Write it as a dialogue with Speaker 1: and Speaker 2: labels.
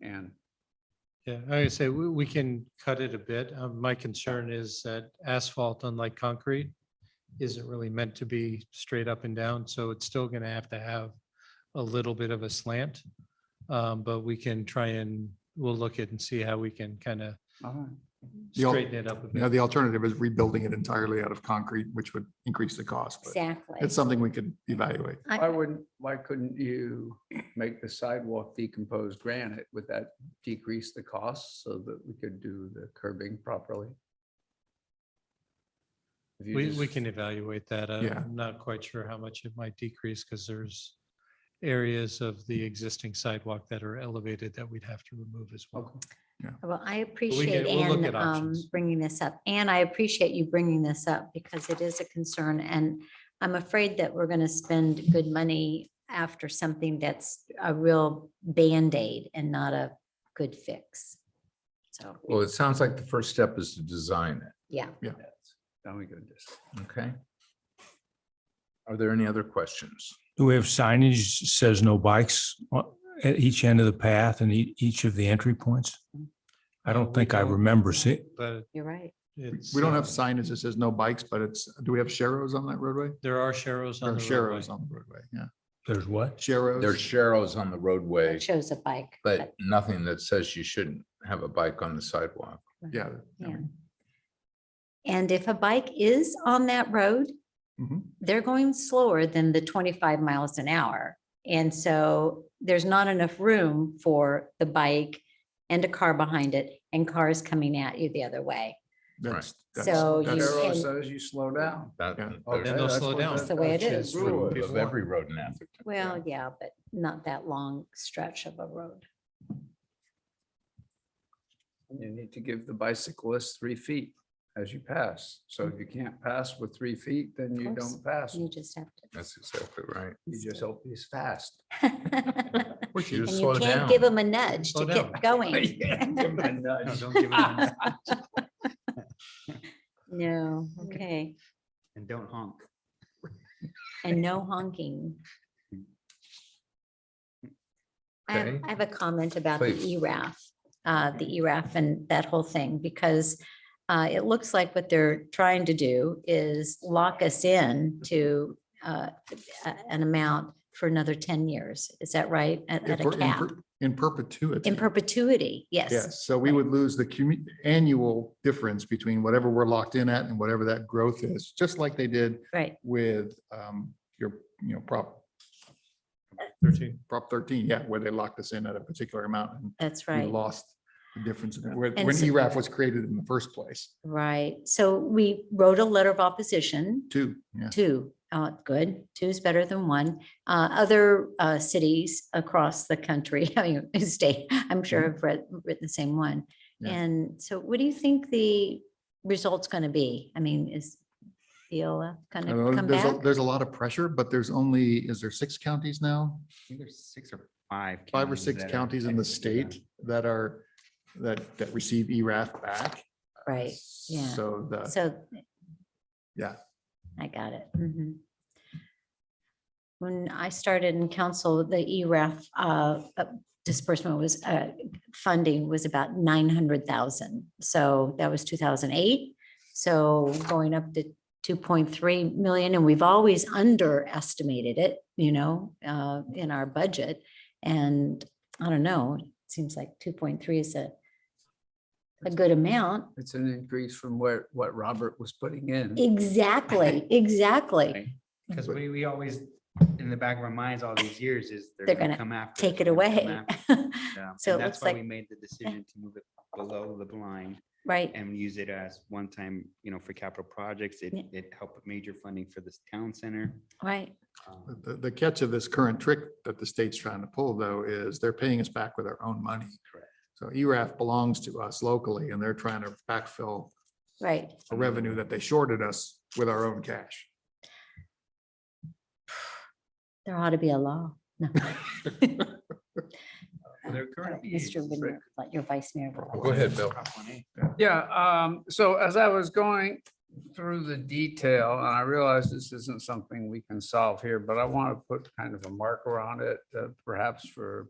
Speaker 1: and
Speaker 2: Yeah, I say we, we can cut it a bit. Um, My concern is that asphalt, unlike concrete, isn't really meant to be straight up and down, so it's still gonna have to have a little bit of a slant. Um, But we can try and, we'll look at and see how we can kind of
Speaker 1: all right.
Speaker 3: The al-
Speaker 2: straighten it up a
Speaker 3: You know,
Speaker 2: bit.
Speaker 3: the alternative is rebuilding it entirely out of concrete, which would increase the cost, but
Speaker 4: Exactly.
Speaker 3: it's something we could evaluate.
Speaker 4: I-
Speaker 1: Why wouldn't, why couldn't you make the sidewalk decomposed granite? Would that decrease the cost so that we could do the curbing properly? If you
Speaker 2: We,
Speaker 1: just-
Speaker 2: we can evaluate that. Uh,
Speaker 3: Yeah.
Speaker 2: I'm not quite sure how much it might decrease because there's areas of the existing sidewalk that are elevated that we'd have to remove as well.
Speaker 1: Okay.
Speaker 4: Well, I appreciate
Speaker 2: we'll look
Speaker 4: Ann
Speaker 2: at
Speaker 4: um,
Speaker 2: options.
Speaker 4: bringing this up, and I appreciate you bringing this up because it is a concern, and I'm afraid that we're going to spend good money after something that's a real Band-Aid and not a good fix. So,
Speaker 5: Well, it sounds like the first step is to design it,
Speaker 4: yeah,
Speaker 1: Yes. Now we go this.
Speaker 5: okay? Are there any other questions?
Speaker 6: Do we have signage that says no bikes on- at each end of the path and ea- each of the entry points? I don't think I remember see,
Speaker 2: But
Speaker 4: you're right.
Speaker 2: it's.
Speaker 3: We don't
Speaker 2: uh,
Speaker 3: have signage that says no bikes, but it's, do we have sheros on that roadway?
Speaker 2: There are sheros
Speaker 3: Or
Speaker 2: on the roadway.
Speaker 3: sheros on the roadway, yeah.
Speaker 6: there's what?
Speaker 3: Sheros.
Speaker 5: There's Sharrows on the roadway,
Speaker 4: It shows a bike.
Speaker 5: but nothing that says you shouldn't have a bike on the sidewalk.
Speaker 3: Yeah.
Speaker 4: Yeah. And if a bike is on that road,
Speaker 3: Mhm.
Speaker 4: they're going slower than the 25 miles an hour. And so there's not enough room for the bike and a car behind it and cars coming at you the other way.
Speaker 3: That's- that's-
Speaker 4: So you
Speaker 3: that's-
Speaker 1: Arrow
Speaker 4: can-
Speaker 1: says you slow down.
Speaker 5: That,
Speaker 3: Yeah.
Speaker 5: there's
Speaker 2: Then they'll
Speaker 1: Okay,
Speaker 2: slow
Speaker 1: what
Speaker 2: down.
Speaker 1: that-
Speaker 4: That's the way it
Speaker 1: that's
Speaker 4: is.
Speaker 1: the
Speaker 5: rule
Speaker 1: rule
Speaker 5: of every road in Atherton.
Speaker 4: Well, yeah, but not that long stretch of a road.
Speaker 1: You need to give the bicyclist three feet as you pass. So if you can't pass with three feet, then you
Speaker 4: Mm-hmm. Of course.
Speaker 1: don't pass.
Speaker 4: You
Speaker 1: You
Speaker 4: just have to.
Speaker 5: That's exactly right.
Speaker 1: just hope he's fast.
Speaker 4: And
Speaker 5: Or you just
Speaker 4: you
Speaker 5: slow
Speaker 4: can't
Speaker 5: down.
Speaker 4: give them a nudge
Speaker 2: Slow
Speaker 4: to
Speaker 2: down.
Speaker 4: get going.
Speaker 2: No, don't
Speaker 1: And
Speaker 2: give it a-
Speaker 4: No, okay.
Speaker 1: don't honk.
Speaker 4: And no honking. I have,
Speaker 5: Okay.
Speaker 4: I have a comment about the
Speaker 5: Please.
Speaker 4: ERAF, uh, the ERAF and that whole thing, because uh, it looks like what they're trying to do is lock us in to uh, a- an amount for another ten years. Is that right? At,
Speaker 3: in
Speaker 4: at a
Speaker 3: per- in
Speaker 4: cap,
Speaker 3: per- In perpetuity.
Speaker 4: in perpetuity, yes.
Speaker 3: Yes, so we would lose the commu- annual difference between whatever we're locked in at and whatever that growth is, just like they did
Speaker 4: Right,
Speaker 3: with um, your, you know, Prop,
Speaker 2: Thirteen.
Speaker 3: Prop thirteen, yeah, where they locked us in at a particular amount and
Speaker 4: that's
Speaker 3: we
Speaker 4: right.
Speaker 3: lost the difference in- when
Speaker 4: And
Speaker 3: when E
Speaker 4: so-
Speaker 3: ERAF was created in the first place,
Speaker 4: Right. So we wrote a letter of opposition
Speaker 3: too. Yeah,
Speaker 4: Two, uh, good. Two is better than one. Uh, other, uh, cities across the country, I mean, state, I'm sure have read, written the same one.
Speaker 3: Mm-hmm. Yeah.
Speaker 4: And so what do you think the result's going to be? I mean, is Viola going
Speaker 3: I don't
Speaker 4: to
Speaker 3: know,
Speaker 4: come
Speaker 3: there's, a-
Speaker 4: back?
Speaker 3: there's a lot of pressure, but there's only, is there six counties now?
Speaker 7: think there's six or five.
Speaker 3: Five or
Speaker 7: counties
Speaker 3: six
Speaker 7: that are
Speaker 3: counties in the
Speaker 7: technically done.
Speaker 3: state that are, that, that receive E ERAF back.
Speaker 4: Right, yeah.
Speaker 3: So the,
Speaker 4: So.
Speaker 3: Yeah.
Speaker 4: I got it. Mhm. When I started in council, the ERAF uh, uh, disbursement was, uh, funding was about nine hundred thousand. So that was two thousand eight. So going up to two point three million, and we've always underestimated it, you know, uh, in our budget. And I don't know, it seems like two point three is a, a good amount.
Speaker 1: It's an increase from where, what Robert was putting in.
Speaker 4: Exactly, exactly.
Speaker 7: Right. Because we, we always, in the back of our minds all these years is they're
Speaker 4: They're
Speaker 7: gonna
Speaker 4: gonna
Speaker 7: come after. us,
Speaker 4: Take it
Speaker 7: they're gonna come
Speaker 4: away.
Speaker 7: after us. Yeah,
Speaker 4: So
Speaker 7: and
Speaker 4: it
Speaker 7: That's
Speaker 4: looks
Speaker 7: why we
Speaker 4: like,
Speaker 7: made the decision to move it below the blind
Speaker 4: right,
Speaker 7: and use it as one time, you know, for capital projects. It,
Speaker 4: Yeah.
Speaker 7: it helped with major funding for this town center.
Speaker 4: right,
Speaker 7: um,
Speaker 3: the, the catch of this current trick that the state's trying to pull though is they're paying us back with our own money.
Speaker 7: Correct.
Speaker 3: So E ERAF belongs to us locally and they're trying to backfill
Speaker 4: right.
Speaker 3: a revenue that they shorted us with our own cash.
Speaker 4: There ought to be a law. No.
Speaker 7: There currently is,
Speaker 4: Mr. Whitmer, let your vice mayor.
Speaker 5: Go ahead, Bill.
Speaker 7: Prop 1A.
Speaker 1: Yeah, um, so as I was going through the detail, and I realize this isn't something we can solve here, but I want to put kind of a marker on it, uh, perhaps for